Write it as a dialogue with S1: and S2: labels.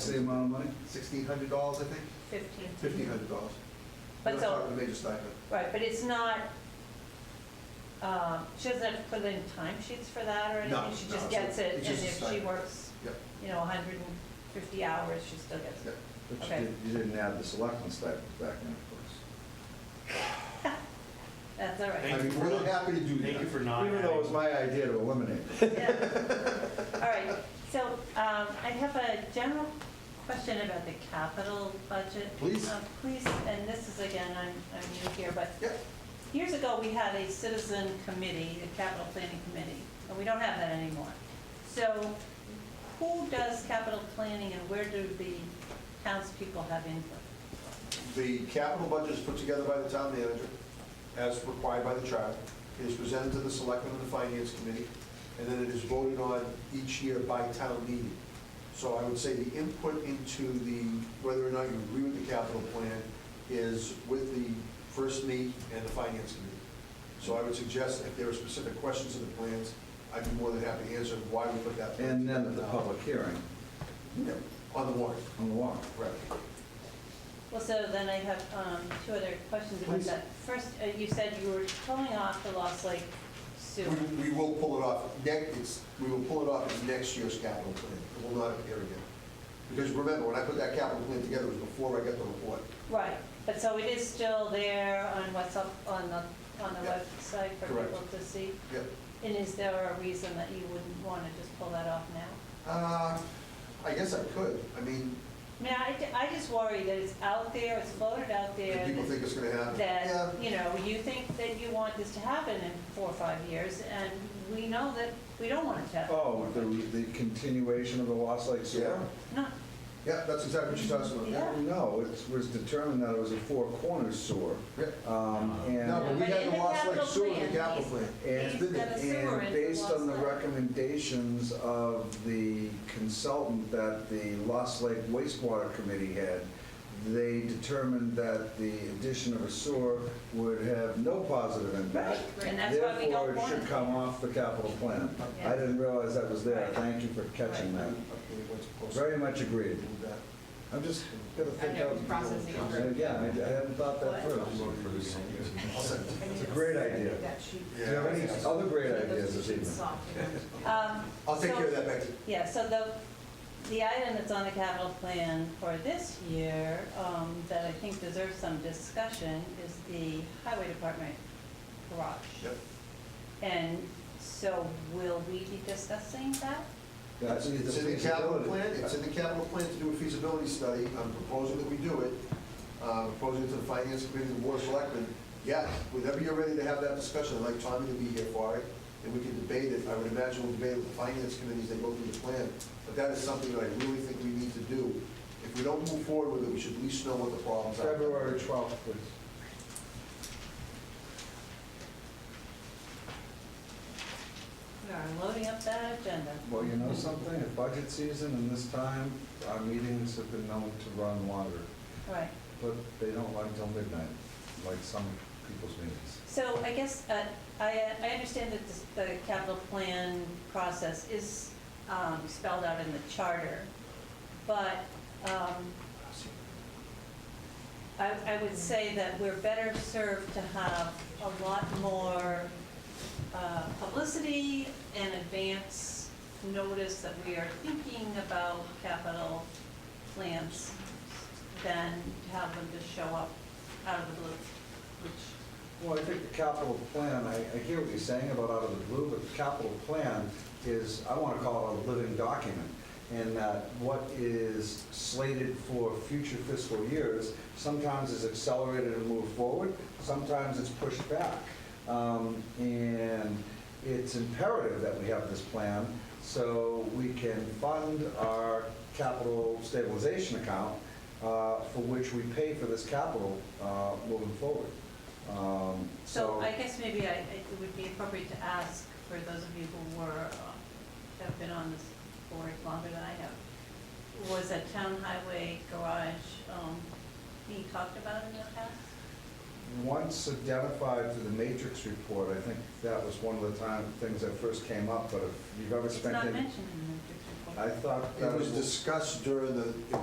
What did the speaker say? S1: same amount of money, sixteen hundred dollars, I think,
S2: 15.
S1: fifteen hundred dollars.
S2: But so-
S1: The major stipend.
S2: Right, but it's not, um, she doesn't have to put in timesheets for that or
S1: No,
S2: anything? She
S1: no,
S2: just
S1: so
S2: gets it,
S1: it's
S2: and
S1: just a
S2: if she
S1: stipend.
S2: works,
S1: Yep,
S2: you know, 150 hours, she still gets
S1: yep.
S2: it.
S3: But you
S2: Okay.
S3: did- you didn't add the selectmen's stipends back in, of course.
S2: That's all right.
S1: I'd be more than happy to do that.
S4: Thank you for not
S3: Even though it was
S4: adding.
S3: my idea to eliminate it.
S2: Yeah. All right, so um, I have a general question about the capital budget.
S1: Please.
S2: Uh, Please, and this is again, I'm I'm new here, but
S1: Yep,
S2: years ago, we had a citizen committee, a capital planning committee, and we don't have that anymore. So who does capital planning and where do the townspeople have input?
S1: the capital budget is put together by the town manager, as required by the charter. It is presented to the selectmen and the finance committee, and then it is voted on each year by town meeting. So I would say the input into the, whether or not you agree with the capital plan, is with the first meet and the finance committee. So I would suggest if there are specific questions in the plans, I'd be more than happy to answer why we put that. plan
S3: And then at
S1: together
S3: the
S1: now.
S3: public hearing
S1: Yeah, On the warrant,
S3: on the warrant.
S1: correct.
S2: Well, so then I have um, two other questions about
S1: Please.
S2: that. First, uh, you said you were pulling off the Lost Lake
S1: We-
S2: sewer.
S1: We will pull it off, next, it's- we will pull it off in next year's capital plan, it will not appear again. Because remember, when I put that capital plan together, it was before I got the report.
S2: Right, but so it is still there on what's up on the, on the
S1: Yeah.
S2: website for
S1: Correct.
S2: people to see?
S1: Yep.
S2: And is there a reason that you wouldn't want to just pull that off now?
S1: Uh, I guess I could, I mean,
S2: I mean, I, I just worry that it's out there, it's floated out
S1: do
S2: there,
S1: people think it's gonna happen? Yeah,
S2: that, you know, you think that you want this to happen in four or five years, and we know that we don't want it to happen.
S3: Oh, the, the continuation of the Lost Lake sewer?
S1: Yeah.
S2: No,
S1: yeah, that's exactly what she's talking about, yeah.
S3: No, it was determined that it was a four corners sewer.
S1: Yeah.
S3: Um,
S1: No, but
S3: And,
S1: we
S2: But
S1: had
S2: in
S1: the
S2: the
S1: Lost Lake
S2: capital
S1: Sewer in
S2: plan,
S1: the capital
S2: these-
S1: plan.
S3: and
S2: He's got a sewer
S3: and
S2: in
S3: based on the
S2: Lost Lake.
S3: recommendations of the consultant that the Lost Lake wastewater committee had, they determined that the addition of a sewer would have no positive impact.
S2: and that's why we don't want
S3: Therefore, it should
S2: it.
S3: come off the capital plan.
S2: Yeah.
S3: I didn't realize that was there.
S2: Right.
S3: Thank you for catching that.
S1: Okay, what's close?
S3: Very much agreed.
S1: Move that.
S3: I'm just gonna think
S5: know,
S3: out.
S5: processing it through.
S3: Yeah, I I hadn't thought that through.
S1: I'll send it.
S3: It's a great idea.
S5: That sheet.
S3: Do you have any other great ideas this evening?
S2: Um,
S1: I'll take
S2: so-
S1: care of that back to,
S2: Yeah, so the, the item that's on the capital plan for this year, um, that I think deserves some discussion, is the highway department garage.
S1: yep.
S2: And so will we be discussing that?
S3: That's either
S1: It's in the capital
S3: feasibility.
S1: plan, it's in the capital plan to do a feasibility study, I'm proposing that we do it, Uh, proposing to the finance committee, the board of selectmen, yeah, whenever you're ready to have that discussion, I'd like Tommy to be here for it, and we can debate it, I would imagine we'll debate it with the finance committees, they go through the plan, but that is something that I really think we need to do. If we don't move forward with it, we should at least know what the problems are.
S3: February 12th, please.
S2: We are loading up that agenda.
S3: Well, you know something, at budget season and this time, our meetings have been known to run longer,
S2: Right.
S3: but they don't run till midnight, like some people's meetings.
S2: So I guess, uh, I, I understand that this- the capital plan process is um, spelled out in the charter, but um, I, I would say that we're better served to have a lot more uh, publicity and advance notice that we are thinking about capital plans than to have them just show up out of the blue, which
S3: Well, I think the capital plan, I, I hear what you're saying about out of the blue, but the capital plan is, I want to call it a living document. And that what is slated for future fiscal years, sometimes is accelerated and moved forward, sometimes it's pushed back. Um, And it's imperative that we have this plan so we can fund our capital stabilization account uh, for which we pay for this capital uh, moving forward. Um,
S2: So I guess maybe I, it would be appropriate to ask for those of you who were, uh, have been on this board longer than I have, was a town highway garage um, being talked about in the past?
S3: Once identified through the matrix report, I think that was one of the time, things that first came up, but if you've ever
S2: It's
S3: spent
S2: not
S3: any.
S2: mentioned in the district report.
S3: I thought.
S1: It
S3: that
S1: was discussed during the,